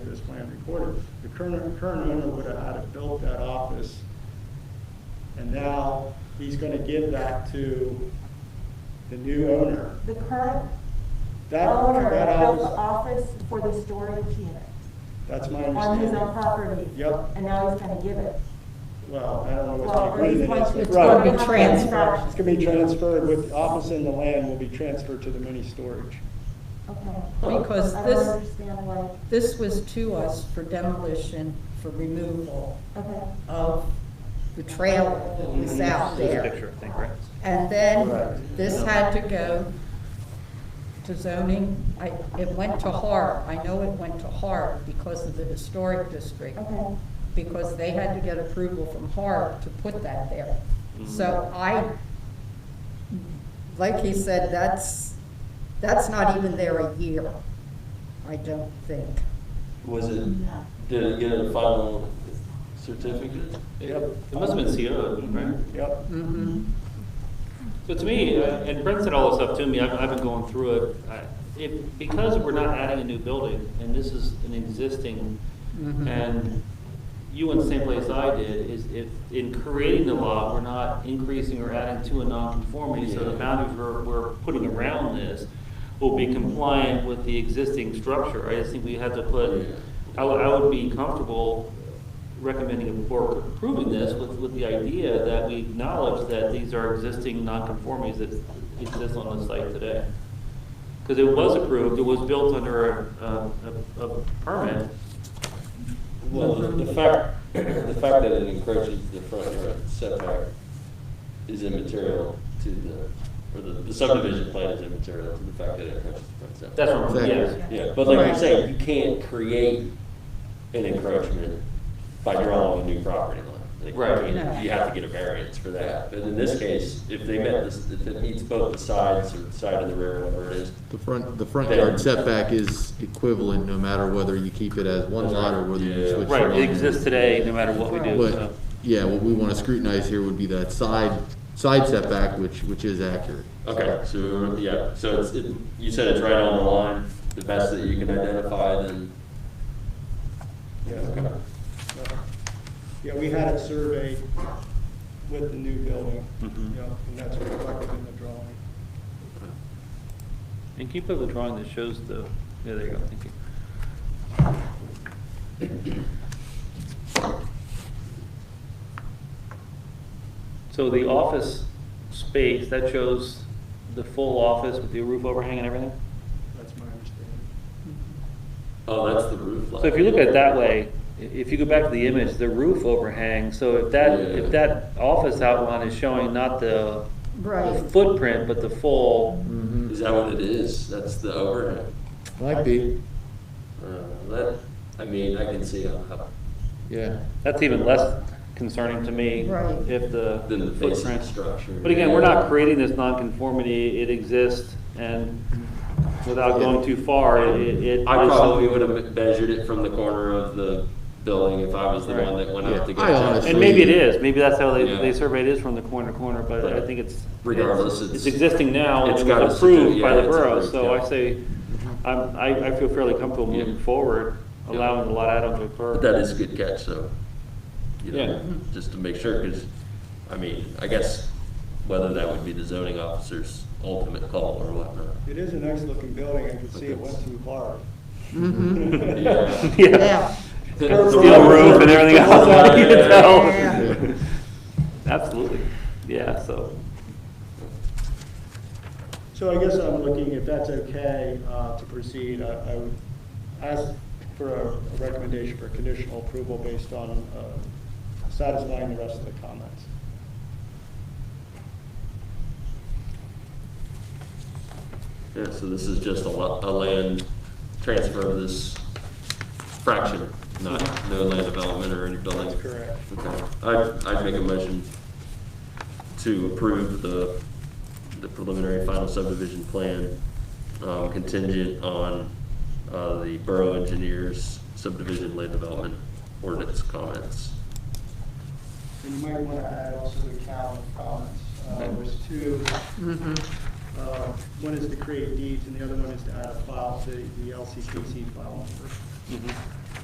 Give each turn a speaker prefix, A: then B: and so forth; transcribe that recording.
A: recorded. The current, current owner would have had to build that office. And now he's gonna give that to the new owner.
B: The current
A: That,
B: owner
A: that
B: built the
A: office,
B: office for the storage unit
A: that's my
B: on his
A: understanding.
B: own property.
A: Yep.
B: And now he's gonna give it.
A: Well, I don't know what
B: Well,
A: the
B: or he's
A: agreement
B: going
A: is. but-
B: to.
C: It's gonna be
A: Right.
C: transferred.
A: It's gonna be transferred with, the office and the land will be transferred to the mini storage.
B: Okay.
C: Because
B: I
C: this-
B: don't understand why,
C: This was to us for demolition, for removal
B: okay.
C: of the trailer that was out
D: There's a
C: there.
D: picture, I think, right?
A: Correct.
C: And then this had to go to zoning. I, it went to HARB. I know it went to HARB because of the historic district.
B: Okay.
C: Because they had to get approval from HARB to put that there. So
D: Mhm.
C: I, like he said, that's, that's not even there a year, I don't think.
E: Was it, did it get a final certificate?
A: Yep.
E: It must have been CO, right?
A: Yep.
C: Mm-hmm.
D: So to me, uh, and Brent said all this stuff to me, I've, I've been going through it. I- It, because we're not adding a new building, and this is an existing,
C: Mhm.
D: and you went the same place I did, is if, in creating the law, we're not increasing or adding to a nonconformity, so the boundaries we're, we're putting around this will be compliant with the existing structure. I just think we have to put, I would, I would be comfortable recommending or approving this with, with the idea that we acknowledge that these are existing nonconformities that exist on the site today. Because it was approved, it was built under a, a, a permit.
E: Well, the the fact, the fact that it encroaches the front yard setback is immaterial to the, or the the subdivision plan is immaterial to the fact that it encroaches the front setback.
D: That's what I'm, yeah.
C: Exactly.
E: Yeah, but like you're saying, you can't create an encroachment by drawing a new property line. Like, you
D: Right.
E: can't- You have to get a variance for that. But in this case, if they met this, if it meets both the sides or the side of the rear, whatever it is,
F: The front, the front yard setback is equivalent no matter whether you keep it as one lot or whether you
E: Yeah.
F: switch it
D: Right,
F: on.
D: it exists today, no matter what we do,
F: But,
D: so.
F: yeah, what we wanna scrutinize here would be that side, side setback, which, which is accurate.
E: Okay, so, we were- yeah, so it's, it- you said it's right on the line, the best that you can identify, then,
A: Yeah. Yeah, we had it surveyed with the new building,
D: Mhm.
A: Yep, and that's reflected in the drawing.
D: And can you put up the drawing that shows the, yeah, there you go, thank you. So the office space, that shows the full office with the roof overhang and everything?
A: That's my understanding.
E: oh, that's the roof line.
D: So if you look at it that way, i- if you go back to the image, the roof overhang, so if that,
E: Yeah.
D: if that office outline is showing not the
C: Right.
D: footprint, but the full,
E: Is that what it is? That's the overhang?
F: Might be,
E: Uh, That, I mean, I can see uh, how- how,
F: yeah.
D: that's even less concerning to me.
C: Right.
D: If the
E: than the face of the
D: footprint.
E: structure.
D: But again, we're not creating this nonconformity, it exists, and without going too far, it, it.
E: I probably would have measured it from the corner of the building if I was the one that went out to go.
F: Right. I honestly-
D: And maybe it is, maybe that's how they,
E: Yeah.
D: they surveyed it is from the corner to corner, but I
E: Right.
D: think it's.
E: Regardless,
D: It's
E: it's-
D: existing now, and
E: it's
D: it
E: gotta
D: was approved
E: sit-
D: by
E: yeah,
D: the
E: it's
D: borough,
E: approved,
D: so
E: yeah.
D: I say, I'm, I, I feel fairly comfortable
E: Yeah.
D: moving forward,
E: Yeah.
D: allowing the lot add-on to
E: But
D: occur.
E: that is a good catch, so, you
D: Yeah.
E: know, just to make sure, because, I mean, I guess whether that would be the zoning officer's ultimate call or whatnot.
A: It is a nice-looking building, I can see it went through hard.
F: Mm-hmm.
E: Yeah.
C: Yeah.
E: The
D: Steel roof and everything else,
E: Yeah,
D: you
E: yeah,
D: know?
C: yeah.
D: Absolutely, yeah, so,
A: So I guess I'm looking, if that's okay uh, to proceed, I I would ask for a recommendation for conditional approval based on uh, satisfying the rest of the comments.
E: Yeah, so this is just a lo- a land transfer of this fraction, not, no land development or any building.
A: That's correct.
E: Okay, I'd, I'd make a motion to approve the, the preliminary final subdivision plan, um, contingent on, uh, the borough engineer's subdivision land development ordinance comments.
A: And you might want to add also the Cal comments. Uh, There's two,
F: Mm-hmm.
A: uh, one is to create deeds, and the other one is to add a file to the LCPC file. number.
D: mhm.